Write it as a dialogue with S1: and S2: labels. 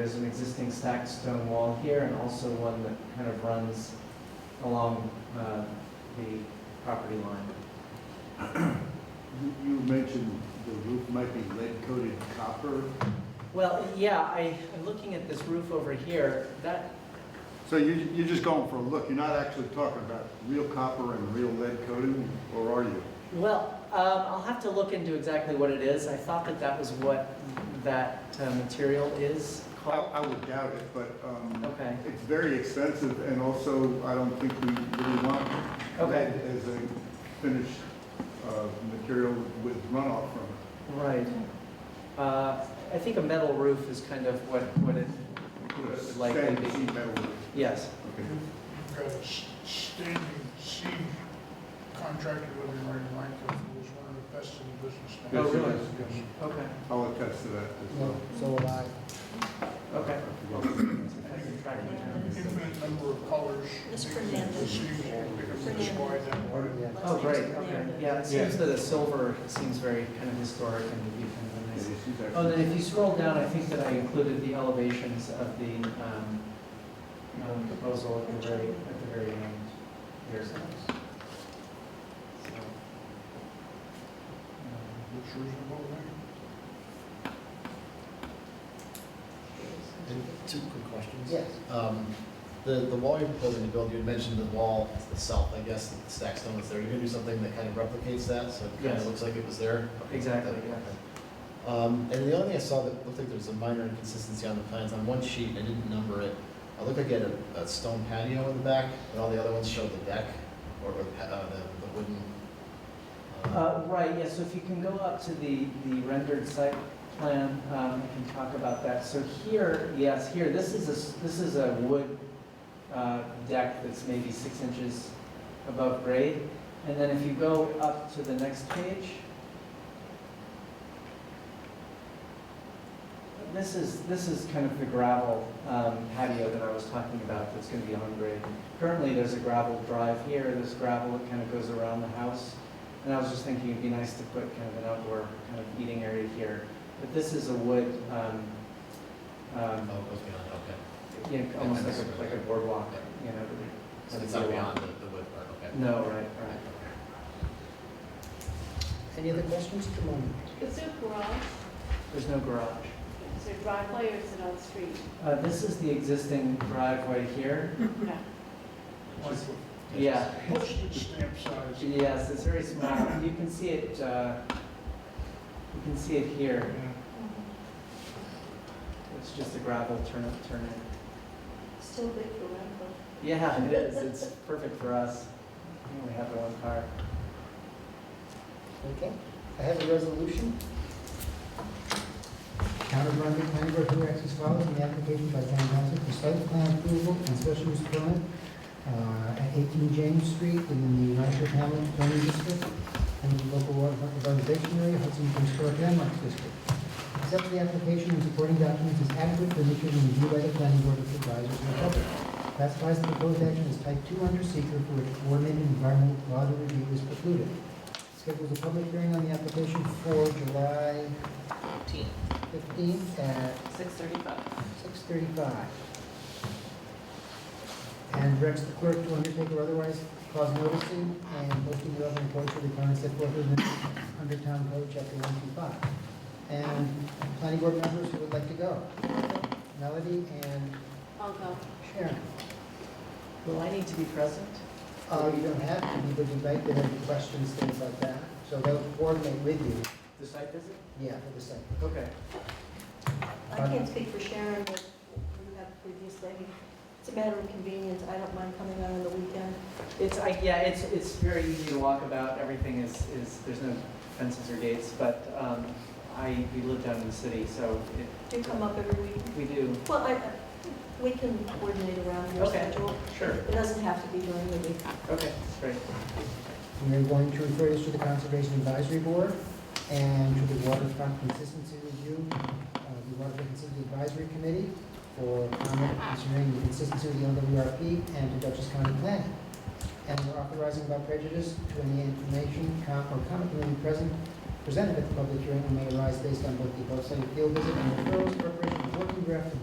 S1: existing stacked stone wall here and also one that kind of runs along uh, the property line.
S2: You you mentioned the roof might be lead coated copper.
S1: Well, yeah, I, I'm looking at this roof over here, that,
S2: So you, you're just going for a look, you're not actually talking about real copper and real lead coating, or are you?
S1: well, um, I'll have to look into exactly what it is. I thought that that was what that uh, material is
S2: I,
S1: called.
S2: I would doubt it, but, um,
S1: Okay,
S2: it's very expensive, and also, I don't think we really want
S1: Okay.
S2: lead as a finished, uh, material with runoff from it.
S1: right. Uh, I think a metal roof is kind of what, what it would likely
S2: Stained
S1: be.
S2: sheet metal roof.
S1: Yes.
S2: Okay.
S3: Got a s- standing seam contractor living right in Lancaster, who's one of the best in the business now.
S2: Yes,
S1: Oh, really?
S3: Yes.
S1: Okay,
S2: I'll attest to that as well.
S4: So will I.
S1: Okay.
S2: Okay.
S1: I can track it down.
S3: Infinite number of colors.
S5: Ms. Fernandez.
S3: The seams will be this wide, that wide.
S4: Yeah.
S1: Oh, great, okay, yeah, it seems that the silver seems very kind of historic and would be kind of a nice. Oh, then if you scroll down, I think that I included the elevations of the um, um, proposal at the very, at the very end here. So, um,
S3: Looks reasonable, right?
S6: And Two quick questions.
S4: Yes.
S6: Um, The, the wall you're proposing to build, you had mentioned the wall itself, I guess, the stack stone is there. You're gonna do something that kind of replicates that, so it kind
S1: Yes.
S6: of looks like it was there?
S1: um, Exactly, yeah.
S6: Um, And the only thing I saw that looked like there was a minor inconsistency on the plans, on one sheet, I didn't number it. It looked like it had a, a stone patio in the back, but all the other ones showed the deck or, or pa- uh, the, the wooden. uh,
S1: Uh, Right, yeah, so if you can go up to the, the rendered site plan, um, I can talk about that. So here, yes, here, this is a, s- this is a wood uh, deck that's maybe six inches above grade. And then if you go up to the next page, this is, this is kind of the gravel um, patio that I was talking about that's going to be on grade. Currently, there's a gravel drive here, there's gravel that kind of goes around the house. And I was just thinking it'd be nice to put kind of an outdoor kind of eating area here. But this is a wood, um,
S6: Oh,
S1: um,
S6: it goes beyond, okay.
S1: you know, almost like a, like a boardwalk, you know.
S6: So it's not beyond the, the wood part, okay.
S1: No, right, right.
S4: Any other questions? Come on.
S5: Is there a garage?
S1: There's no garage.
S5: Is there driveway or is it on street?
S1: Uh, this is the existing driveway here.
S5: No.
S3: Like
S1: Yeah,
S3: a postage stamp size.
S1: yes, it's very small. You can see it, uh, you can see it here.
S3: Yeah.
S1: It's just a gravel turn, turn in.
S5: Still big for rental.
S1: Yeah, it is. It's perfect for us. We only have our own car.
S4: Okay. I have a resolution. Town of Grundy Planning Board directs as follows, the application by town council for site plan approval and special use permit uh, at 18 James Street in the Rancho Hamlet zoning district and the local water revitalization area, Hudson Historic Landmarks District. Accept the application and supporting documents as adequate for issued and reviewed by the planning board with advisors of the public. Classifies the proposed action as type 2 under seeker for which coordinated environmental law review is precluded. Schedules a public hearing on the application for July 15th at
S5: Six thirty-five.
S4: 6:35. And directs the clerk to undertake or otherwise cause noticing and posting the relevant code for the current set forth in the under town code, chapter 125. And planning board members who would like to go, Melody and
S5: I'll go.
S4: Sharon.
S1: Will I need to be present?
S4: Uh, You don't have to, be, but you might get any questions, things like that. So they'll coordinate with you,
S1: The site visit?
S4: yeah, for the second.
S1: Okay.
S5: I can't speak for Sharon, but you have previously. It's a matter of convenience. I don't mind coming out on the weekend.
S1: It's, I, yeah, it's, it's very easy to walk about, everything is, is, there's no fences or gates, but, um, I, we live down in the city, so it,
S5: Do you come up every week?
S1: we do,
S5: Well, I, we can coordinate around your
S1: Okay.
S5: schedule.
S1: sure,
S5: It doesn't have to be during the week.
S1: okay, great.
S4: And We're going to refer this to the Conservation Advisory Board and to the Waterfront Consistency Review, uh, the Waterfront Consistency Advisory Committee for comment concerning the consistency of the LWRP and to Dutchess County Planning. And we're authorizing without prejudice to any information com- or comment will be present, presented at the public hearing and may arise based on both the above cited field visit and referrals, preparation of working draft of the